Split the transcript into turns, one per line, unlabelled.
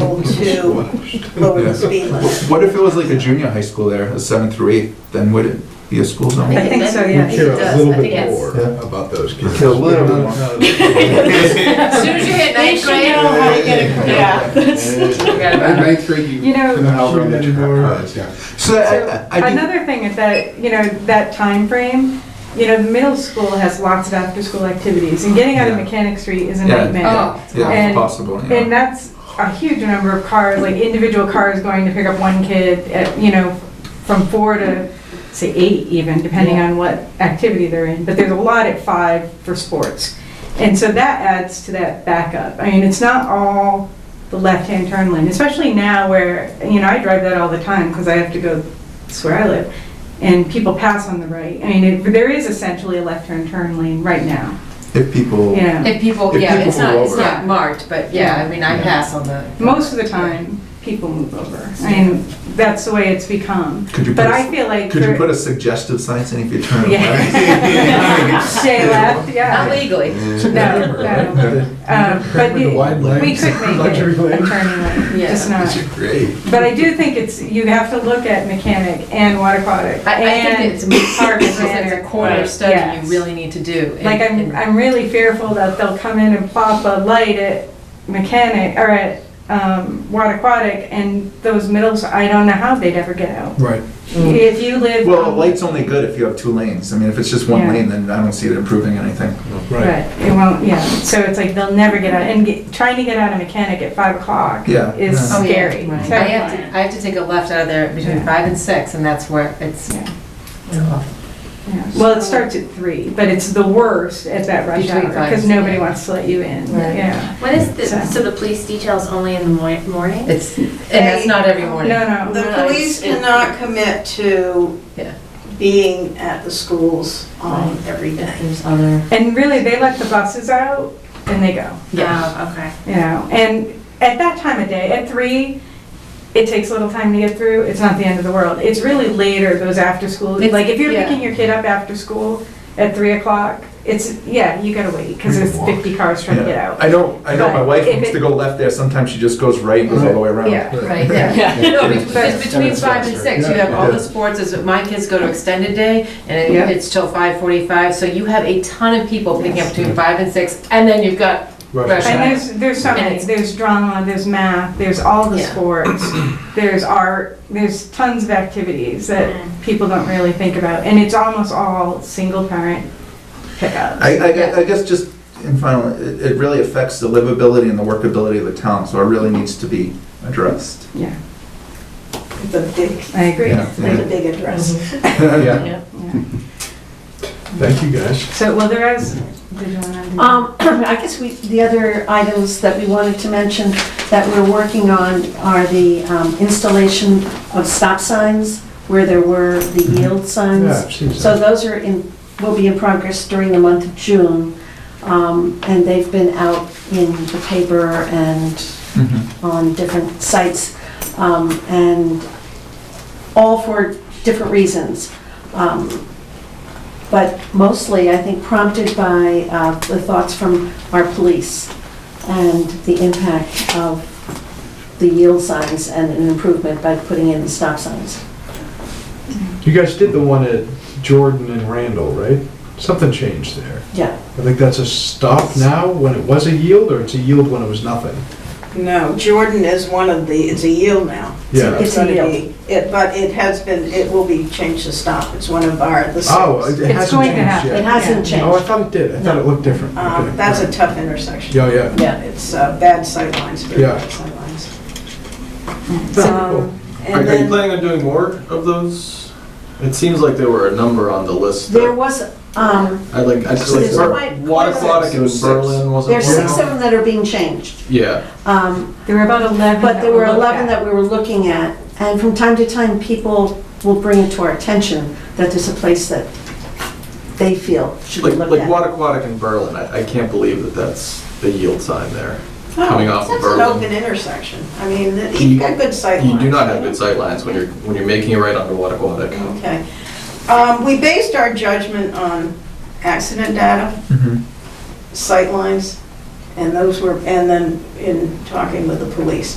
able to lower the speed limit.
What if it was like a junior high school there, a seventh through eighth, then would it be a school zone?
I think so,
Then
yeah.
we
I think
care
it
a
does.
little
I
bit
think it's-
more
Yeah.
about those kids.
Care a little bit more.
As
more.
soon as you hit ninth grade. forget about it.
ninth grade, you
You know-
couldn't outrun the
Shoot anymore.
tractors, yeah.
So I, I, I do,
Another thing is that, you know, that time frame. you know, middle school has lots of after-school activities, and getting out of
Yeah.
Mechanic Street is a
Yeah.
nightmare.
Oh,
yeah,
and-
it's possible,
And
yeah.
that's a huge number of cars, like individual cars going to pick up one kid at, you know, from four to, say, eight even, depending on what activity they're in. But there's a lot at five for sports. And so that adds to that backup. I mean, it's not all the left-hand turn lane, especially now where, you know, I drive that all the time because I have to go, it's where I live. And people pass on the right. I mean, it- there is essentially a left-hand turn lane right now,
If people,
you know.
If people,
If
yeah,
people
it's not,
move
it's
over.
not marked, but yeah, I mean, I
Yeah.
pass on the.
Most of the time, people move over, and that's the way it's become.
could you put,
But I
a-
feel like.
could you
for-
put a suggestive sign saying if you turn
Yeah.
left?
Stay left,
Not
yeah.
legally.
No, no. Um, But
With the wide
you- we
lanes,
could make
luxury
it a
lanes.
turning lane,
Yeah.
just
These
not.
are great.
But I do think it's, you have to look at mechanic and water aquatic
I, I think
and
it's
park
hard because it's a
center.
corner study
Yes.
you really need to do.
Like, I'm, I'm really fearful that they'll come in and plop a light at mechanic, or at um, water aquatic, and those middles, I don't know how they'd ever get out.
Right.
If you live.
Mm. Well, a
on-
light's only good if you have two lanes. I mean, if it's just one
Yeah.
lane, then I don't see it improving anything.
Right, it won't, yeah, so it's like they'll never get out, and get- trying to get out of mechanic at five o'clock
Yeah.
is
Yeah.
Oh, yeah,
scary.
right. I have
terrifying.
to, I have to take a left out of there between
Yeah.
five and six, and that's where it's.
Yeah.
it's awful.
Yeah. Well, it starts at three, but it's the worst at that rush hour,
Between five
because
and-
nobody wants to let you in,
Right.
yeah.
What is the,
So-
so the police detail's only in the moi- morning?
It's, and that's not every morning.
No, no,
The police cannot commit to
Yeah.
being at the schools on every
If
day.
There's other.
and really, they let the buses out and they go,
Yeah.
Oh, okay.
you know, and at that time of day, at three, it takes a little time to get through, it's not the end of the world, it's really later, those after school,
It's-
like, if you're
yeah.
picking your kid up after school at three o'clock, it's, yeah, you gotta wait, because there's
Walk.
fifty cars trying to get out.
I know, I know my
But
wife
if
wants
it-
to go left there. Sometimes she just goes right and goes all the way around.
Yeah.
Right,
Yeah.
yeah. No, be-
But-
because between
it's
five and
faster.
six, you
Yeah.
have all
Yeah.
the sports, is, my kids go to extended day, and
Yeah.
it- it's till five forty-five, so you have a ton of people picking up between five and six, and then you've got,
Right.
And there's, there's so many, there's drama, there's math, there's all the
Yeah.
sports, there's art, there's tons of activities that people don't really think about, and it's almost all single parent pickups.
I, I, I guess just in final, it, it really affects the livability and the workability of the town, so it really needs to be addressed.
Yeah,
It's a big,
I agree.
Yeah.
it's a big address.
Mm-hmm.
Yeah.
Yeah.
Thank you, guys.
So, well, there is, did you wanna do-
Um, I guess we, the other items that we wanted to mention that we're working on are the um, installation of stop signs where there were the yield
Yeah,
signs.
I've seen
So
some.
those are in, will be in progress during the month of June. Um, And they've been out in the paper and
Mhm.
on different sites, um, and all for different reasons. Um, But mostly, I think prompted by uh, the thoughts from our police and the impact of the yield signs and an improvement by putting in the stop signs.
You guys did the one at Jordan and Randall, right? Something changed there.
Yeah,
I think that's a stop now when it was a yield, or it's a yield when it was nothing?
No, Jordan is one of the, it's a yield now.
Yeah.
It's a
gonna
yield.
be- It, but it has been, it will be changed to stop. It's one of our, the
Oh,
six.
it
It's
hasn't
going to
changed
happen.
it
yet.
hasn't
Oh, I
changed.
thought it did. I thought it looked different.
Um,
Okay.
That's a tough intersection.
Yeah, yeah.
Yeah.
It's uh, bad sightlines, very
Yeah.
bad sightlines.
um,
Cool.
Are
And
are you
then,
planning on doing more of those? It seems like there were a number on the list.
There
that-
was, um,
I like, I just like,
There's
Bur-
quite-
Water Aquatic
It was
in
six.
Berlin wasn't
there's
one
six
of
of
them?
them that are being changed.
Yeah,
Um,
there were about 11.
But there were
looked
11
at.
that we were looking at, and from time to time, people will bring it to our attention that there's a place that they feel should be
like,
looked
like
at.
Water Aquatic in Berlin, I, I can't believe that that's the yield sign there, coming
oh,
off of
it's an open
Berlin.
intersection. I mean, th- you've got good sightlines.
You do not have good sightlines when you're, when you're making it right onto Water Aquatic.
Okay. Um, We based our judgment on accident data,
Mhm.
sightlines, And those were, and then in talking with the police.